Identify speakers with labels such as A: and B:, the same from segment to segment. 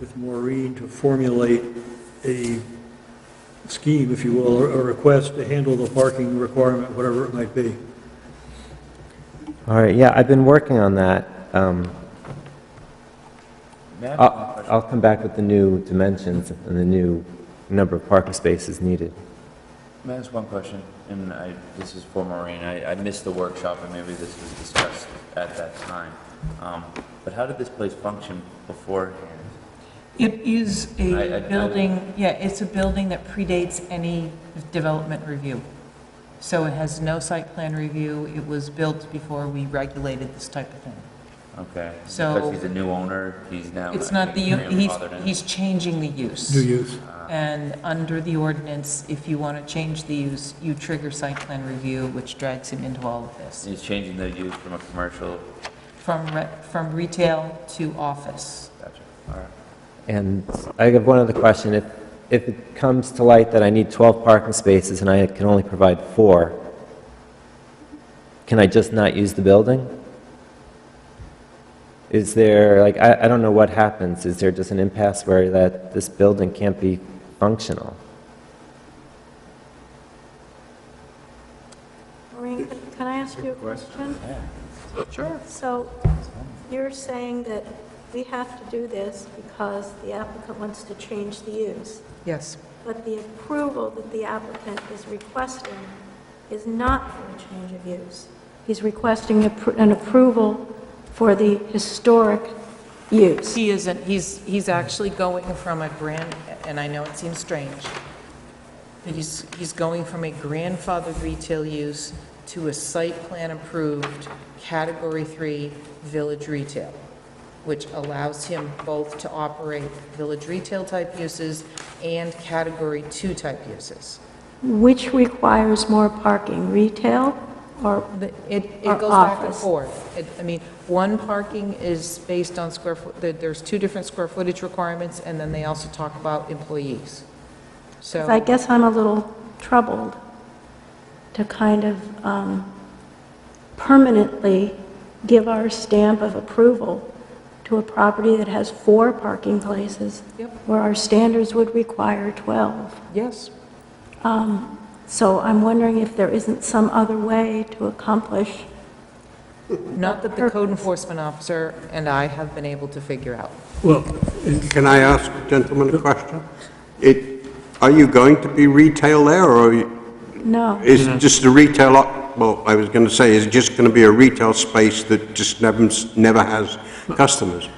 A: with Maureen to formulate a scheme, if you will, or a request to handle the parking requirement, whatever it might be.
B: All right, yeah, I've been working on that. Um, I'll I'll come back with the new dimensions and the new number of parking spaces needed.
C: May I ask one question? And I, this is for Maureen. I, I missed the workshop and maybe this was discussed at that time. Um, but how did this place function beforehand?
D: It is
C: I- I-
D: a
C: I-
D: building, yeah, it's a building that predates any development review. So it has no site plan review. It was built before we regulated this type of thing.
C: Okay.
D: So-
C: Because he's a new owner, he's now.
D: It's not the, u- he's, he's changing the
A: New
D: use.
A: use.
D: And under the ordinance, if you want to change the use, you trigger site plan review, which drags him into all of this.
C: He's changing the use from a commercial,
D: From, re- from retail to office.
C: gotcha, all right.
B: And I have one other question. If, if it comes to light that I need 12 parking spaces and I can only provide four, can I just not use the building? Is there, like, I, I don't know what happens. Is there just an impasse where that this building can't be functional?
E: Maureen, can- can I ask you a question? Sure. So you're saying that we have to do this because the applicant wants to change the use,
D: Yes.
E: but the approval that the applicant is requesting is not for a change of use. He's requesting appro- an approval for the historic use.
D: He isn't, he's, he's actually going from a grand, and I know it seems strange, but he's, he's going from a grandfathered retail use to a site plan approved category three village retail, which allows him both to operate village retail type uses and category two type uses.
E: Which requires more parking, retail or
D: The- It, it
E: Or
D: goes back and
E: office.
D: forth. It- I mean, one parking is based on square foot, there- there's two different square footage requirements, and then they also talk about employees. So,
E: I guess I'm a little troubled to kind of um, permanently give our stamp of approval to a property that has four parking places
D: Yep.
E: where our standards would require 12.
D: yes,
E: So I'm wondering if there isn't some other way to accomplish,
D: not that the code enforcement officer and I have been able to figure out.
A: Well,
F: Can I ask the gentleman a question? It, are you going to be retail there, or you-
E: no.
F: is it just a retail, op- well, I was going to say, is it just going to be a retail space that just never, never has customers?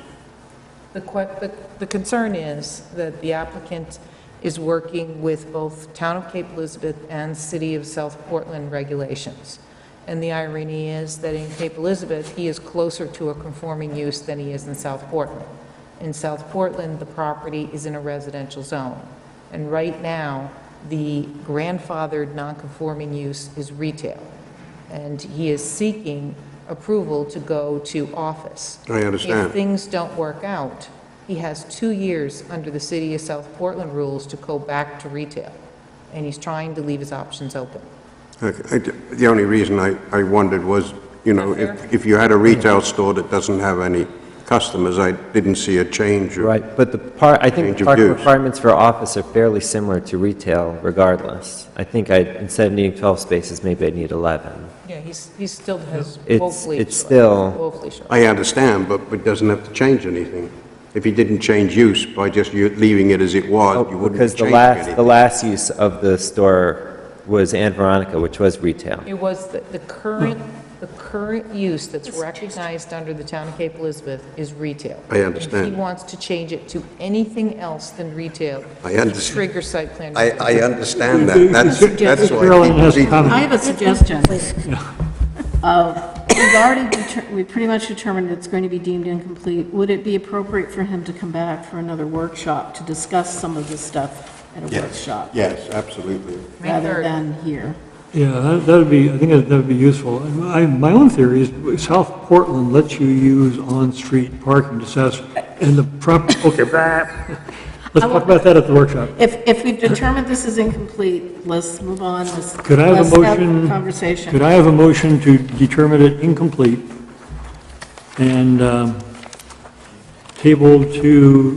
D: The que, the, the concern is that the applicant is working with both Town of Cape Elizabeth and City of South Portland regulations. And the irony is that in Cape Elizabeth, he is closer to a conforming use than he is in South Portland. In South Portland, the property is in a residential zone. And right now, the grandfathered nonconforming use is retail. And he is seeking approval to go to office.
F: I understand.
D: If things don't work out, he has two years under the City of South Portland rules to go back to retail, and he's trying to leave his options open.
F: Okay, I d- The only reason I, I wondered was, you know, if, if you had a retail store that doesn't have any customers, I didn't see a change. of-
B: Right, but the par, I think
F: Change of
B: parking
F: use.
B: requirements for office are fairly similar to retail regardless. I think I, instead of needing 12 spaces, maybe I need 11.
D: Yeah, he's, he still has
B: It's-
D: woefully
B: it's
D: short-
B: still-
D: Woefully short.
F: I understand, but it doesn't have to change anything. If you didn't change use by just you leaving it as it
B: Oh,
F: was, you wouldn't
B: Because
F: have
B: the
F: changed
B: last, the
F: anything.
B: last use of the store was Aunt Veronica, which was retail.
D: It was the, the current, the current use that's recognized under the town of Cape Elizabeth is retail.
F: I understand.
D: If he wants to change it to anything else than retail,
F: I understand.
D: trigger site plan.
F: I,
D: review.
F: I understand that, that's, that's why.
A: Carolyn has
F: people-
A: comments.
G: I have a suggestion. Uh, We've already, deter- we pretty much determined it's going to be deemed incomplete. Would it be appropriate for him to come back for another workshop to discuss some of this stuff at a workshop?
F: Yes, absolutely.
D: May
G: Rather
D: third.
G: than here?
A: Yeah, that- that would be, I think that would be useful. And I, my own theory is South Portland lets you use on-street parking to satisfy, and the prop, okay, blah. let's talk about that at the workshop.
G: If, if we've determined this is incomplete, let's move on, let's.
A: Could I have a
G: let's
A: motion?
G: Conversation.
A: Could I have a motion to determine it incomplete and um, table to